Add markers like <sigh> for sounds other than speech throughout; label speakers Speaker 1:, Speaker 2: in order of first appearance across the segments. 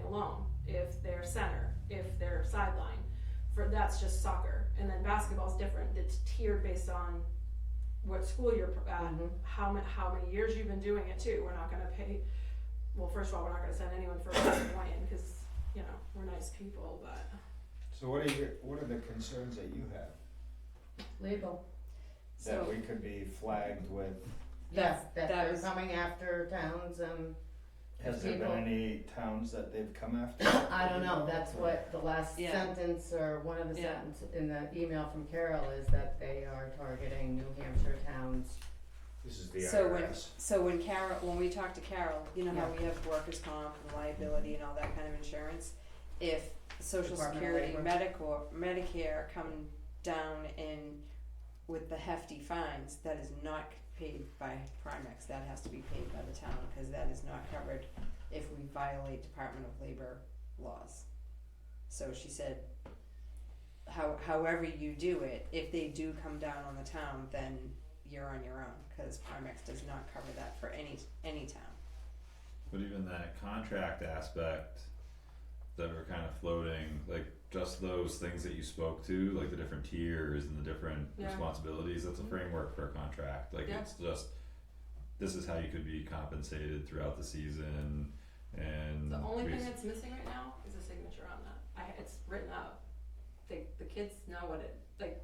Speaker 1: alone, if they're center, if they're sideline. For, that's just soccer, and then basketball's different, it's tiered based on what school you're pro- at,
Speaker 2: Mhm.
Speaker 1: how many, how many years you've been doing it too, we're not gonna pay, well, first of all, we're not gonna send anyone for a <coughs> in cause, you know, we're nice people, but.
Speaker 3: So what are your, what are the concerns that you have?
Speaker 2: Legal.
Speaker 3: That
Speaker 2: So,
Speaker 3: we could be flagged with,
Speaker 2: yes, that
Speaker 4: that
Speaker 2: they're
Speaker 4: was-
Speaker 2: coming after towns and,
Speaker 3: has there been
Speaker 2: People.
Speaker 3: any towns that they've come after?
Speaker 2: I don't know, that's what the last
Speaker 4: Yeah.
Speaker 2: sentence or one of the
Speaker 4: Yeah.
Speaker 2: sentences in the email from Carol is that they are targeting New Hampshire towns.
Speaker 3: This is the
Speaker 4: So when-
Speaker 3: IRS.
Speaker 4: So when Carol, when we talk to Carol, you know how we have workers' comp and liability and all that kind of insurance? If social
Speaker 2: Department of
Speaker 4: security,
Speaker 2: Labor.
Speaker 4: medical, Medicare come down in with the hefty fines, that is not paid by Primex, that has to be paid by the town, cause that is not covered if we violate Department of Labor laws. So she said, how, however you do it, if they do come down on the town, then you're on your own because Primex does not cover that for any any town.
Speaker 5: But even that contract aspect that were kind of floating, like just those things that you spoke to, like the different tiers and the different
Speaker 1: Yeah. Mm-hmm.
Speaker 5: responsibilities, that's a framework for a contract. Like
Speaker 1: Yeah.
Speaker 5: it's just this is how you could be compensated throughout the season and
Speaker 1: The only
Speaker 5: we-
Speaker 1: thing that's missing right now is a signature on that. I, it's written up. They, the kids know what it, like,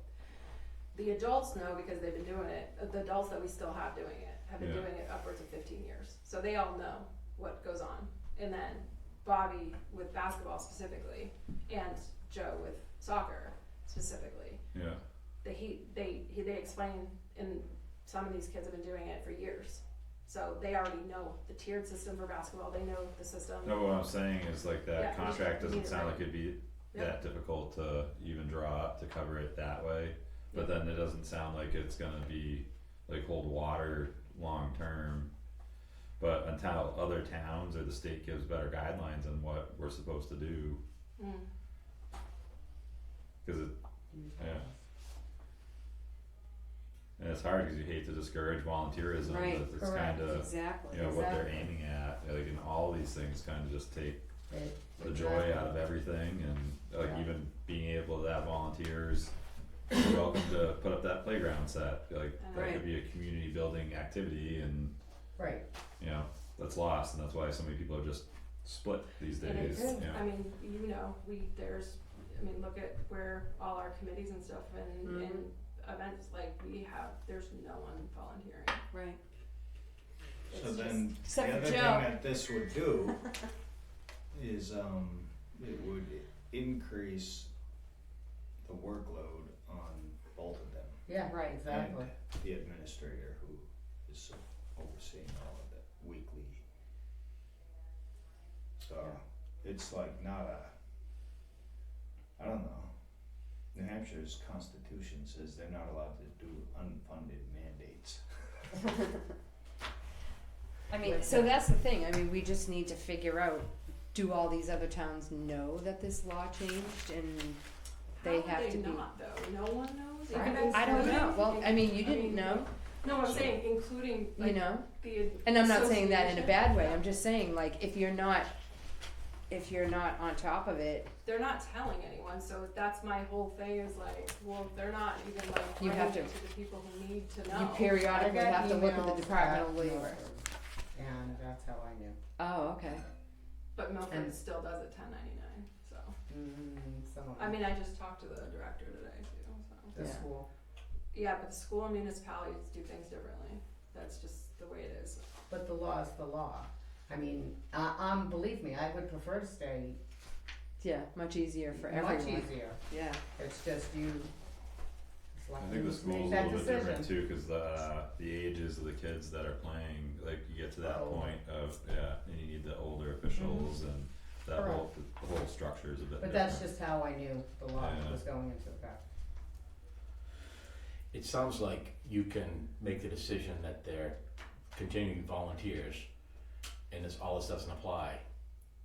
Speaker 1: the adults know because they've been doing it. Uh, The adults that we still have doing it have been
Speaker 5: Yeah.
Speaker 1: doing it upwards of fifteen years. So they all know what goes on. And then Bobby with basketball specifically and Joe with soccer specifically
Speaker 5: yeah.
Speaker 1: they he they he, they explain and some of these kids have been doing it for years so they already know the tiered system for basketball they know the system
Speaker 5: No, what I'm saying is like that
Speaker 1: Yeah, we just
Speaker 5: contract
Speaker 1: need
Speaker 5: doesn't
Speaker 1: it
Speaker 5: sound
Speaker 1: right.
Speaker 5: like it'd be
Speaker 1: Yeah.
Speaker 5: that difficult to even draw up to cover it that way. But then it doesn't sound like it's gonna be like hold water long term. But until other towns or the state gives better guidelines on what we're supposed to do,
Speaker 1: Mm.
Speaker 5: cause it, Yeah. and it's hard, cause you hate to discourage volunteerism,
Speaker 4: Right,
Speaker 5: but it's
Speaker 2: correct.
Speaker 5: kinda,
Speaker 4: exactly.
Speaker 5: you know, what they're
Speaker 2: Exactly.
Speaker 5: aiming at, like, and all these things kinda just take
Speaker 2: They-
Speaker 5: the joy out of everything and like
Speaker 2: Yeah.
Speaker 5: even being able to have volunteers be welcome to put up that playground set like that
Speaker 4: Right.
Speaker 5: could be a community building activity and
Speaker 2: Right,
Speaker 5: you know that's lost and that's why so many people are just split these
Speaker 1: And
Speaker 5: days
Speaker 1: it's-
Speaker 5: you know.
Speaker 1: i mean you know we there's i mean look at where all our committees and stuff and,
Speaker 4: Mm-hmm.
Speaker 1: and events like we have there's no one volunteering
Speaker 4: Right.
Speaker 3: So
Speaker 1: It's
Speaker 3: then, the
Speaker 4: Except
Speaker 3: other
Speaker 4: for
Speaker 3: thing
Speaker 4: Joe.
Speaker 3: that this would do is, um, it would increase the workload on both of them.
Speaker 2: yeah,
Speaker 4: Right.
Speaker 2: exactly.
Speaker 3: And the administrator who is overseeing all of it weekly. So, it's like not a, I don't know. New Hampshire's constitution says they're not allowed to do unfunded mandates.
Speaker 4: I mean,
Speaker 2: Right.
Speaker 4: so that's the thing. I mean, we just need to figure out: do all these other towns know that this law changed, and
Speaker 1: how
Speaker 4: they
Speaker 1: would
Speaker 4: have
Speaker 1: they
Speaker 4: to be-
Speaker 1: not though no one knows
Speaker 2: Right.
Speaker 1: Even
Speaker 4: I don't know.
Speaker 1: including-
Speaker 4: Well, I mean, you
Speaker 1: I
Speaker 4: didn't
Speaker 1: mean,
Speaker 4: know,
Speaker 1: no i'm
Speaker 3: So-
Speaker 1: saying including
Speaker 4: you
Speaker 1: like,
Speaker 4: know.
Speaker 1: the
Speaker 4: And I'm not saying that in a
Speaker 1: association.
Speaker 4: bad way. I'm just saying, like, if you're not, if you're not on top of it,
Speaker 1: they're not telling anyone, so that's my whole thing is like, well, they're not even like
Speaker 4: You
Speaker 1: bringing
Speaker 4: have to-
Speaker 1: it to the people who need to
Speaker 4: you
Speaker 1: know.
Speaker 2: I
Speaker 4: periodically
Speaker 2: got
Speaker 4: have to look at
Speaker 2: emails
Speaker 4: the Department of
Speaker 2: about
Speaker 4: Labor.
Speaker 2: Milford, And that's how I knew.
Speaker 4: Oh, okay.
Speaker 1: But Milford
Speaker 2: And-
Speaker 1: still does it ten ninety nine, so,
Speaker 2: Mm, some of
Speaker 1: I
Speaker 2: them.
Speaker 1: mean, I just talked to the director today too, so.
Speaker 2: The
Speaker 4: Yeah.
Speaker 2: school,
Speaker 1: Yeah, but the school and municipalities do things differently, that's just the way it is.
Speaker 2: but the law is the law. I mean, uh, um, believe me, I would prefer to stay
Speaker 4: Yeah, much easier for
Speaker 2: much
Speaker 4: everyone.
Speaker 2: easier.
Speaker 4: Yeah.
Speaker 2: It's just you. it's like
Speaker 5: I think
Speaker 2: you
Speaker 5: the
Speaker 2: make
Speaker 5: school's a
Speaker 2: that
Speaker 5: little bit different
Speaker 2: decision.
Speaker 5: too, cause the uh, the ages of the kids that are playing, like you get to that
Speaker 2: Oh.
Speaker 5: point of yeah, and you need the older officials and that whole the whole structure is a bit
Speaker 2: Mm-hmm. But
Speaker 5: different.
Speaker 2: that's just how I knew the law
Speaker 5: Yeah.
Speaker 2: was going into effect.
Speaker 6: It sounds like you can make the decision that they're continuing volunteers and this, all this doesn't apply.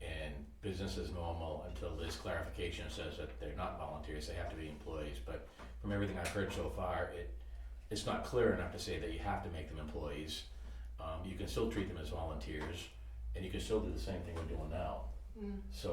Speaker 6: And business is normal until this clarification says that they're not volunteers, they have to be employees. But from everything I've heard so far, it, it's not clear enough to say that you have to make them employees. Um, you can still treat them as volunteers and you can still do the same thing we're doing now.
Speaker 1: Mm.
Speaker 6: So